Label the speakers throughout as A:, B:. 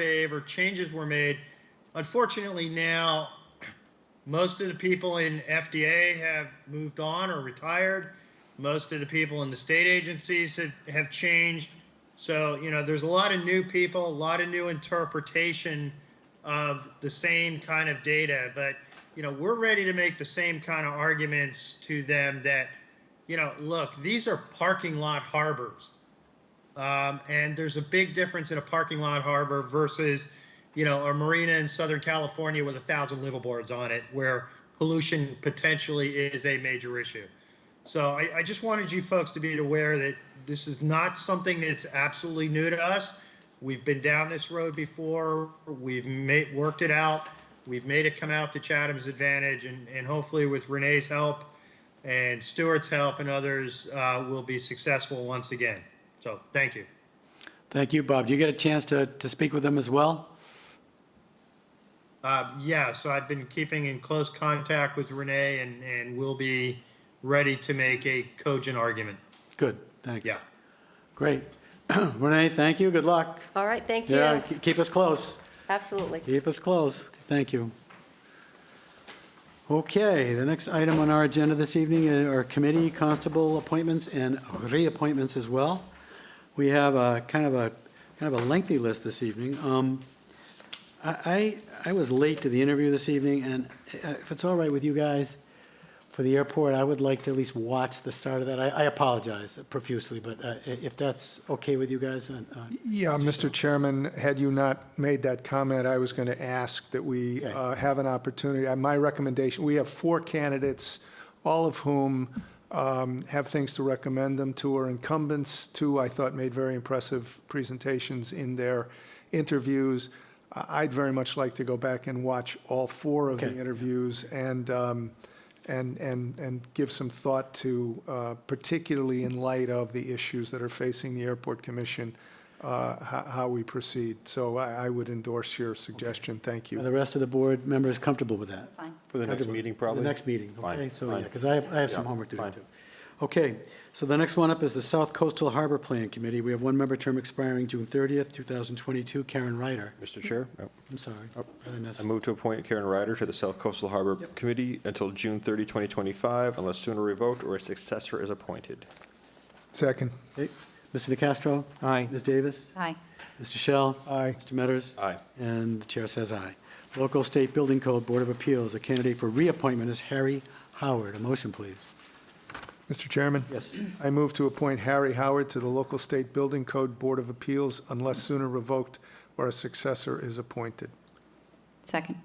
A: favor, changes were made. Unfortunately, now most of the people in FDA have moved on or retired. Most of the people in the state agencies have, have changed. So, you know, there's a lot of new people, a lot of new interpretation of the same kind of data. But, you know, we're ready to make the same kind of arguments to them that, you know, look, these are parking lot harbors. Um, and there's a big difference in a parking lot harbor versus, you know, a marina in Southern California with a thousand liveaboards on it where pollution potentially is a major issue. So I, I just wanted you folks to be aware that this is not something that's absolutely new to us. We've been down this road before. We've made, worked it out. We've made it come out to Chatham's advantage and, and hopefully with Renee's help and Stuart's help and others, uh, we'll be successful once again. So thank you.
B: Thank you, Bob. Do you get a chance to, to speak with them as well?
A: Uh, Yes, I've been keeping in close contact with Renee and, and will be ready to make a cogent argument.
B: Good, thanks.
A: Yeah.
B: Great. Renee, thank you, good luck.
C: All right, thank
B: Yeah,
C: you.
B: ke- keep us close,
C: Absolutely.
B: keep us close, thank you. Okay, the next item on our agenda this evening are committee constable appointments and reappointments as well. We have a kind of a, kind of a lengthy list this evening. Um, I, I I was late to the interview this evening, and uh, if it's all right with you guys, for the airport, I would like to at least watch the start of that. I, I apologize profusely, but uh, i- if that's okay with you guys, uh, uh,
D: Yeah, Mr. Chairman, had you not made that comment, I was going to ask that we
B: Okay.
D: uh, have an opportunity. Uh, My recommendation, we have four candidates, all of whom um, have things to recommend them to, are incumbents. Two, I thought, made very impressive presentations in their interviews. I- I'd very much like to go back and watch all four of the
B: Okay.
D: interviews and, um, and, and, and give some thought to, uh, particularly in light of the issues that are facing the Airport Commission, uh, how, how we proceed. So I, I would endorse your suggestion. Thank
B: are
D: you.
B: the rest of the board members comfortable with that?
E: For the next meeting, probably?
B: The next meeting,
E: Fine,
B: okay, so, yeah,
E: fine.
B: because I have, I have some
E: Yeah,
B: homework to do
E: fine.
B: too. Okay, so the next one up is the South Coastal Harbor Plan Committee. We have one member term expiring June 30th, 2022, Karen Ryder.
E: Mr. Chair, Yep.
B: I'm sorry,
E: Oh,
B: did I miss?
E: I move to appoint Karen Ryder to the South Coastal Harbor Committee until June 30, 2025, unless sooner revoked or a successor is appointed.
D: Second.
B: Okay. Mr. DeCastro? Aye. Ms. Davis?
C: Hi.
B: Mr. Shell?
D: Aye.
B: Mr. Metters?
E: Aye.
B: And the chair says aye. Local State Building Code Board of Appeals, a candidate for reappointment is Harry Howard. A motion, please.
D: Mr. Chairman?
B: Yes.
D: I move to appoint Harry Howard to the local state building code Board of Appeals unless sooner revoked or a successor is appointed.
C: Second.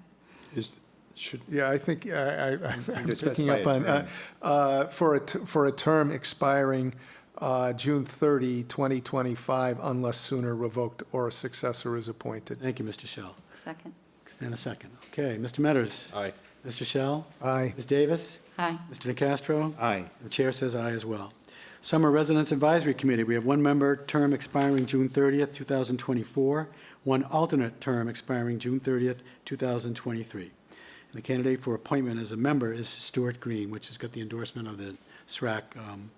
E: Is, should.
D: Yeah, I think, I, I, I'm
E: just
D: picking
E: specify
D: up
E: a
D: on, uh,
E: term.
D: uh, for a, t- for a term expiring, uh, June 30, 2025, unless sooner revoked or a successor is appointed.
B: Thank you, Mr. Shell.
C: Second.
B: And a second. Okay, Mr. Metters?
E: Aye.
B: Mr. Shell?
D: Aye.
B: Ms. Davis?
C: Hi.
B: Mr. Nacastro?
E: Aye.
B: The chair says aye as well. Summer Residence Advisory Committee, we have one member term expiring June 30th, 2024, one alternate term expiring June 30th, 2023. And the candidate for appointment as a member is Stuart Green, which has got the endorsement of the SRAC um,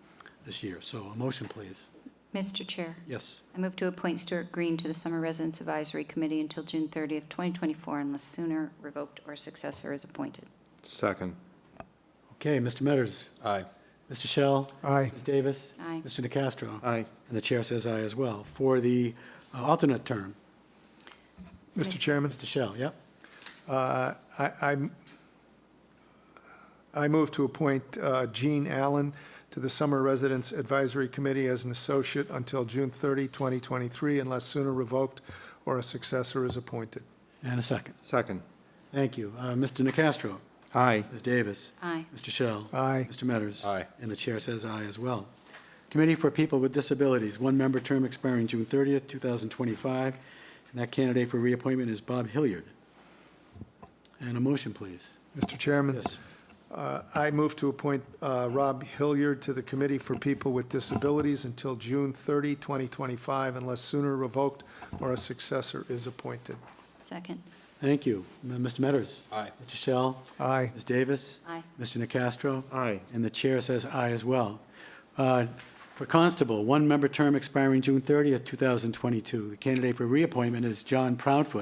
B: this year. So a motion, please.
F: Mr. Chair,
B: Yes,
F: I move to appoint Stuart Green to the Summer Residence Advisory Committee until June 30th, 2024, unless sooner revoked or successor is appointed.
G: Second.
B: okay, Mr. Metters.
E: Aye.
B: Mr. Shell.
D: Aye.
B: Ms. Davis.
F: Aye.
B: Mr. Nacastro.
G: Aye.
B: And the chair says aye as well. For the uh, alternate term,
D: Mr. Chairman?
B: Mr. Shell, yep?
D: Uh, I, I'm- I move to appoint uh, Gene Allen to the Summer Residence Advisory Committee as an associate until June 30, 2023, unless sooner revoked or a successor is appointed.
B: And a second.
G: Second.
B: Thank you. Uh, Mr. Nacastro.
G: Aye.
B: Ms. Davis.
F: Aye.
B: Mr. Shell.
D: Aye.
B: Mr. Metters.
E: Aye.
B: And the chair says aye as well. Committee for People with Disabilities, one-member term expiring June 30th, 2025, and that candidate for reappointment is Bob Hilliard. And a motion, please.
D: Mr. Chairman?
B: Yes.
D: Uh, I move to appoint uh, Rob Hilliard to the Committee for People with Disabilities until June 30, 2025, unless sooner revoked or a successor is appointed.
F: Second.
B: Thank you. M- Mr. Metters.
E: Aye.
B: Mr. Shell.
D: Aye.
B: Ms. Davis.
F: Aye.
B: Mr. Nacastro.
G: Aye.
B: And the chair says aye as well. Uh, For Constable, one-member term expiring June 30th, 2022. The candidate for reappointment is John Proudfoot.